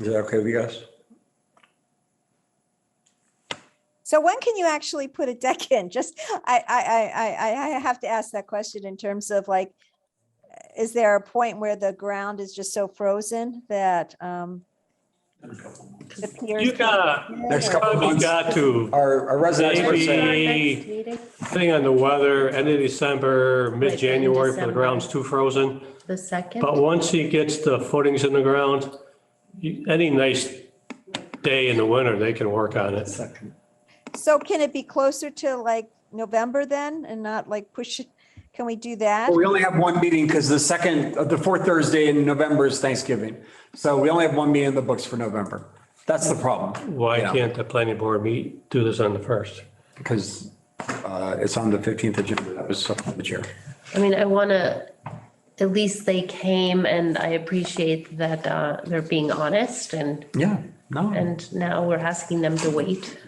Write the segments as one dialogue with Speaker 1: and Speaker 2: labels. Speaker 1: Is that okay with you guys?
Speaker 2: So when can you actually put a deck in? Just, I, I, I, I, I have to ask that question in terms of like, is there a point where the ground is just so frozen that, um, the piers
Speaker 3: You got,
Speaker 1: Next couple of
Speaker 3: probably
Speaker 1: months,
Speaker 3: got to,
Speaker 1: our, our resident expert said,
Speaker 3: maybe, depending on the weather, end of December, mid-January, for the
Speaker 4: December.
Speaker 3: ground's too frozen.
Speaker 4: The second?
Speaker 3: But once he gets the footings in the ground, you- any nice day in the winter, they can work on it.
Speaker 2: can't- So can it be closer to like November then and not like push, it? can we do that?
Speaker 1: we only have one meeting because the second, uh, the fourth Thursday in November is Thanksgiving. So we only have one meeting in the books for November. That's the problem.
Speaker 3: Why
Speaker 1: Yeah.
Speaker 3: can't the planning board meet, do this on the first?
Speaker 1: Because uh, it's on the 15th agenda. That was up on the chair.
Speaker 4: I mean, I want to, at least they came and I appreciate that uh, they're being honest and,
Speaker 1: Yeah, no.
Speaker 4: and now we're asking them to wait.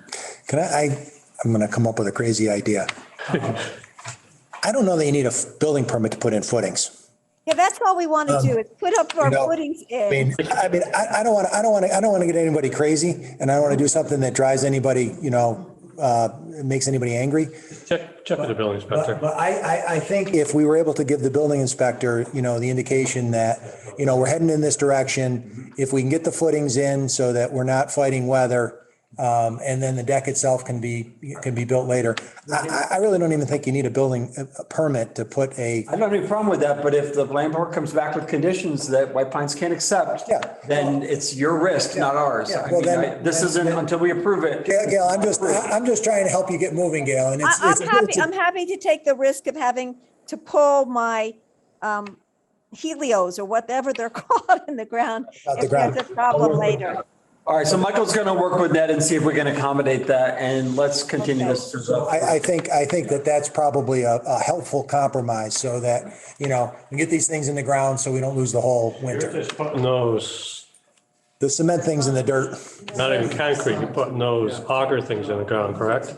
Speaker 5: Can I, I, I'm gonna come up with a crazy idea. I don't know that you need a f- building permit to put in footings.
Speaker 2: Yeah, that's all we want to do is put up our
Speaker 5: Um, you know,
Speaker 2: footings
Speaker 5: I
Speaker 2: in.
Speaker 5: mean, I mean, I, I don't wanna, I don't wanna, I don't wanna get anybody crazy and I don't wanna do something that drives anybody, you know, uh, makes anybody angry.
Speaker 3: Check, check with the building
Speaker 5: But,
Speaker 3: inspector.
Speaker 5: but I, I, I think if we were able to give the building inspector, you know, the indication that, you know, we're heading in this direction. If we can get the footings in so that we're not fighting weather, um, and then the deck itself can be, can be built later. I, I, I really don't even think you need a building uh, a permit to put a,
Speaker 1: I don't have any problem with that, but if the land board comes back with conditions that White Pines can't accept,
Speaker 5: Yeah.
Speaker 1: then it's your risk, not ours. I
Speaker 5: well,
Speaker 1: mean,
Speaker 5: then-
Speaker 1: I- This isn't until we approve it.
Speaker 5: Gail, Gail, I'm just, I- I'm just trying to help you get moving, Gail, and
Speaker 2: I-
Speaker 5: it's. it's
Speaker 2: I'm
Speaker 5: a-
Speaker 2: happy,
Speaker 5: it's a-
Speaker 2: I'm happy to take the risk of having to pull my um helios or whatever they're called in the ground
Speaker 5: Out Uh, the
Speaker 2: if there's
Speaker 5: ground. Oh,
Speaker 2: a problem later.
Speaker 1: All right, so Michael's going to work with that and see if we can accommodate that, and let's continue this.
Speaker 5: I, I think, I think that that's probably a, a helpful compromise so that, you know, we get these things in the ground so we don't lose the whole
Speaker 3: You're
Speaker 5: winter.
Speaker 3: just putting those,
Speaker 5: The cement things in the dirt.
Speaker 3: not even concrete, you're putting those auger things in the ground, correct?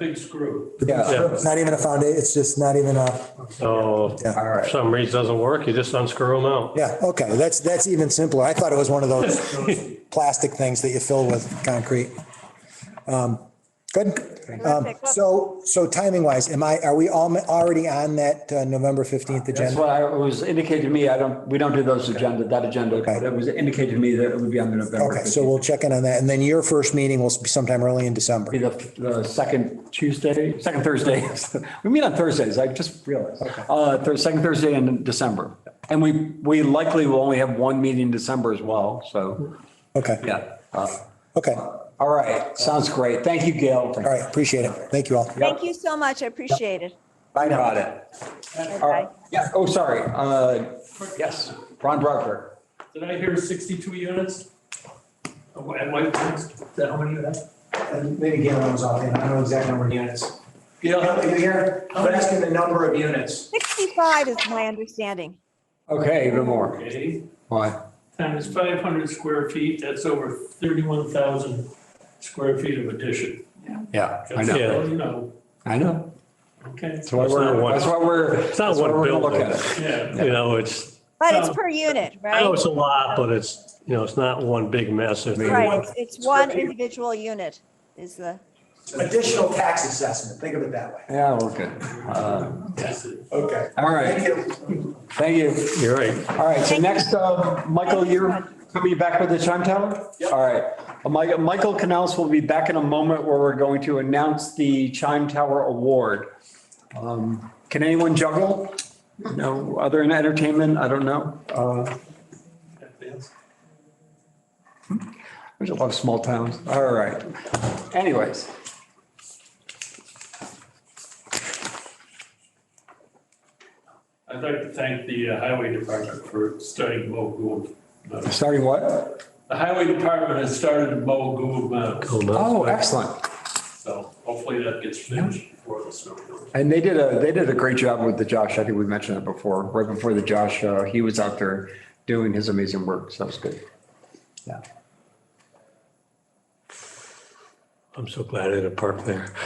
Speaker 1: Yeah.
Speaker 5: It's not even a foundation, it's just not even a,
Speaker 3: So
Speaker 5: Yeah.
Speaker 3: for some reason doesn't work, you just unscrew them out.
Speaker 5: yeah, okay, that's, that's even simpler. I thought it was one of those plastic things that you fill with concrete. Um, Good. Um, So, so timing wise, am I, are we all already on that uh, November 15th
Speaker 1: That's
Speaker 5: agenda?
Speaker 1: what I it was indicated to me. I don't, we don't do those agenda, that agenda, but it was indicated to me that it would be on the November.
Speaker 5: Okay, so we'll check in on that. And then your first meeting will be sometime early in December.
Speaker 1: Be the, the second Tuesday, second Thursday. We meet on Thursdays. I just realized. Uh, the second Thursday in December. And we, we likely will only have one meeting in December as well. So,
Speaker 5: Okay,
Speaker 1: yeah. Uh,
Speaker 5: okay, all
Speaker 1: All right. Sounds great. Thank you, Gail.
Speaker 5: right, appreciate it. Thank you all.
Speaker 2: Thank you so much. I appreciate it.
Speaker 1: Bye now. Got it. All right. Yeah. Oh, sorry. Uh, yes, Ron Barker.
Speaker 6: Did I hear sixty-two units? Oh, At White Plains? Is that how many of that?
Speaker 7: And Maybe Galen was off, I don't know the exact number of units. Galen, are you here? I'm asking the number of units.
Speaker 2: 65 is my understanding.
Speaker 1: Okay, even more.
Speaker 6: Okay,
Speaker 1: Why?
Speaker 6: times five hundred square feet, that's over thirty-one thousand square feet of addition.
Speaker 1: Yeah, I
Speaker 3: know.
Speaker 6: Just so You know,
Speaker 1: I know.
Speaker 3: why
Speaker 6: okay,
Speaker 1: That's why
Speaker 3: we're-
Speaker 1: we're, that's why we're.
Speaker 3: It's not
Speaker 1: that's why
Speaker 3: one
Speaker 1: we're gonna look
Speaker 3: building.
Speaker 1: at it.
Speaker 6: yeah.
Speaker 3: You know, it's,
Speaker 2: But it's
Speaker 6: Um,
Speaker 2: per unit,
Speaker 3: I know
Speaker 2: right?
Speaker 3: it's a lot, but it's, you know, it's not one big massive.
Speaker 2: Right. it's- It's one individual unit is the,
Speaker 7: Additional tax assessment, think of it that way.
Speaker 1: Yeah, we're good. Uh,
Speaker 7: Okay.
Speaker 1: All
Speaker 7: Thank
Speaker 1: right,
Speaker 7: you.
Speaker 1: thank you.
Speaker 3: You're right.
Speaker 1: All right, so
Speaker 2: Thank you.
Speaker 1: next, uh, Michael, you're coming back with the chime tower? All right. Uh, Mi- Michael Canales will be back in a moment where we're going to announce the chime tower award. Um, Can anyone juggle? No, other than entertainment, I don't know. Uh, There's a lot of small towns. All right. Anyways.
Speaker 6: I'd like to thank the uh, highway department for starting Mo Gould. Mountain.
Speaker 1: Starting what?
Speaker 6: The highway department has started Mo Gould, Mountain,
Speaker 3: Cool, no?
Speaker 1: Oh, excellent.
Speaker 6: so hopefully that gets finished before the snow comes.
Speaker 1: And they did a, they did a great job with the Josh. I think we mentioned it before, right before the Josh, uh, he was out there doing his amazing work. So that was good. Yeah.
Speaker 3: I'm so glad I didn't park there.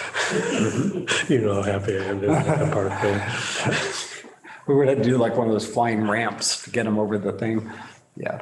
Speaker 3: You know how happy I am that I didn't park there.
Speaker 1: We would have to do like one of those flying ramps to get him over the thing. Yeah.